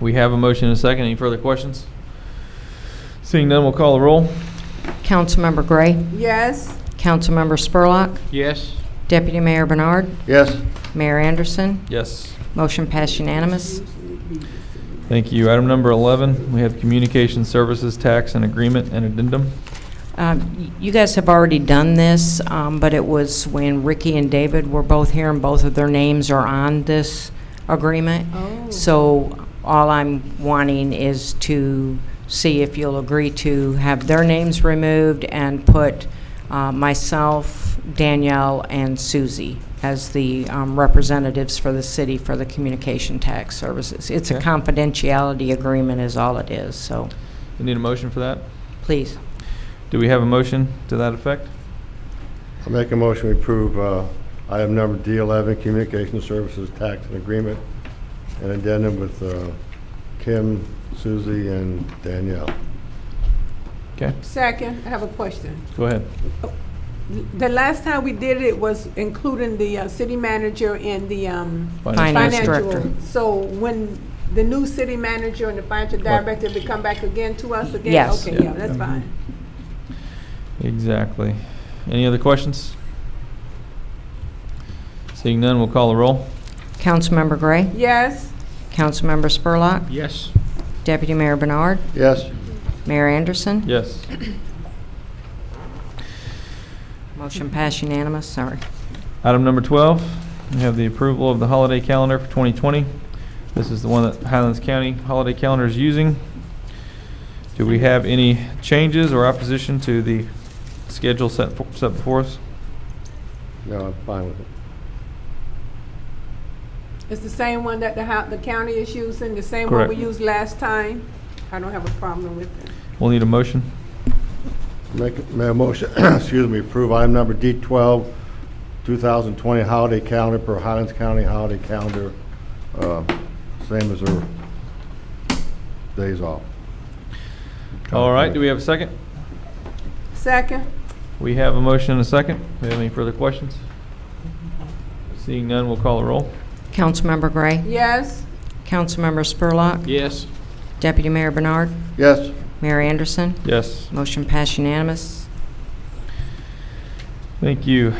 We have a motion and a second. Any further questions? Seeing none, we'll call the roll. Councilmember Gray. yes, Councilmember Spurlock. Yes. Deputy Mayor Bernard. yes, Mayor Anderson. Yes. Motion passed unanimous. Thank you. Item number 11, we have Communication Services Tax and Agreement and Addendum. Um, y- You guys have already done this, um, but it was when Ricky and David were both here, and both of their names are on this agreement. Oh. So all I'm wanting is to see if you'll agree to have their names removed and put uh, myself, Danielle, and Susie as the um, representatives for the city for the communication tax services. It's a Okay. confidentiality agreement is all it is, so Do you need a motion for that? please. Do we have a motion to that effect? I make a motion to approve uh, item number D11, Communication Services Tax and Agreement, and addendum with uh, Kim, Susie, and Danielle. Okay, second, I have a question. go ahead. The last time we did it was including the uh, city manager and the um, Finance Finance financial. director. So when the new city manager and the financial What? director will come back again to us again? Yes. Okay, Yeah. yeah, that's fine. Exactly. Any other questions? Seeing none, we'll call the roll. Councilmember Gray? Yes, Councilmember Spurlock? Yes. Deputy Mayor Bernard? Yes, Mayor Anderson? Yes. Motion passed unanimous, sorry. Item number 12, we have the approval of the holiday calendar for 2020. This is the one that Highlands County Holiday Calendar is using. Do we have any changes or opposition to the schedule set fo- set before us? no, I'm fine with it. it's the same one that the hou- the county is using, the same one we Correct. used last time. I don't have a problem with it. We'll need a motion. Make make a motion, excuse me, approve item number D12, 2020 Holiday Calendar per Highlands County Holiday Calendar, uh, same as their days off. All right, do we have a second? Second, We have a motion and a second. Do we have any further questions? Seeing none, we'll call a roll. Councilmember Gray? yes, Councilmember Spurlock? Yes. Deputy Mayor Bernard? Yes, Mayor Anderson? Yes. Motion passed unanimous. Thank you.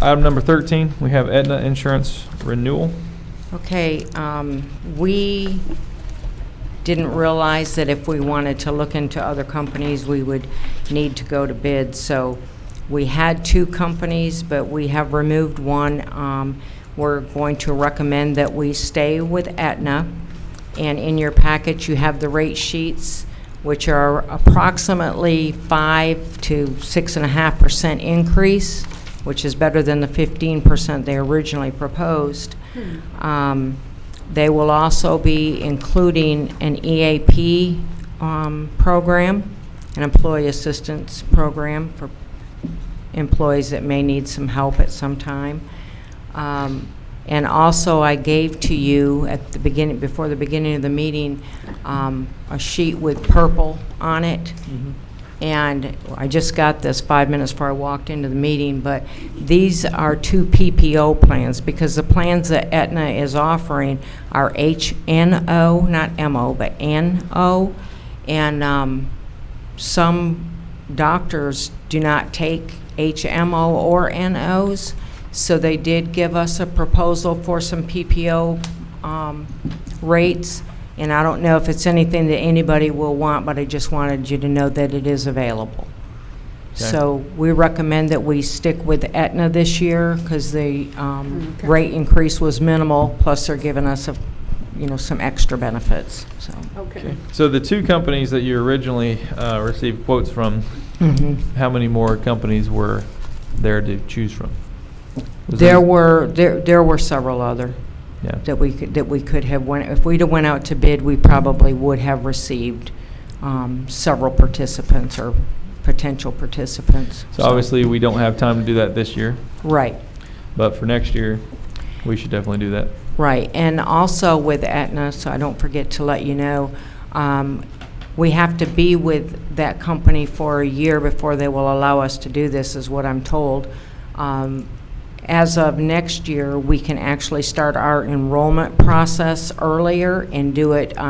Item number 13, we have Aetna Insurance Renewal. Okay, um, we didn't realize that if we wanted to look into other companies, we would need to go to bid. So we had two companies, but we have removed one. Um, We're going to recommend that we stay with Aetna. And in your package, you have the rate sheets, which are approximately 5 to 6.5% increase, which is better than the 15% they originally proposed. Um, They will also be including an EAP um, program, an employee assistance program for employees that may need some help at some time. Um, And also, I gave to you at the beginning, before the beginning of the meeting, um, a sheet with purple on it. Mm-hmm. And I just got this five minutes before I walked into the meeting, but these are two PPO plans, because the plans that Aetna is offering are HNO, not MO, but NO, and um, some doctors do not take HMO or NOs, so they did give us a proposal for some PPO um, rates, and I don't know if it's anything that anybody will want, but I just wanted you to know that it is available. Okay. So we recommend that we stick with Aetna this year, because the um, rate increase was minimal, plus they're giving us, a you know, some extra benefits, so. okay. So the two companies that you originally uh, received quotes from, Mhm. how many more companies were there to choose from? Was There there- were, there there were several other Yeah. that we could, that we could have went, if we'd have went out to bid, we probably would have received um, several participants or potential participants. So obviously, we don't have time to do that this year, Right, but for next year, we should definitely do that. right. And also with Aetna, so I don't forget to let you know, um, we have to be with that company for a year before they will allow us to do this, is what I'm told. Um, As of next year, we can actually start our enrollment process earlier and do it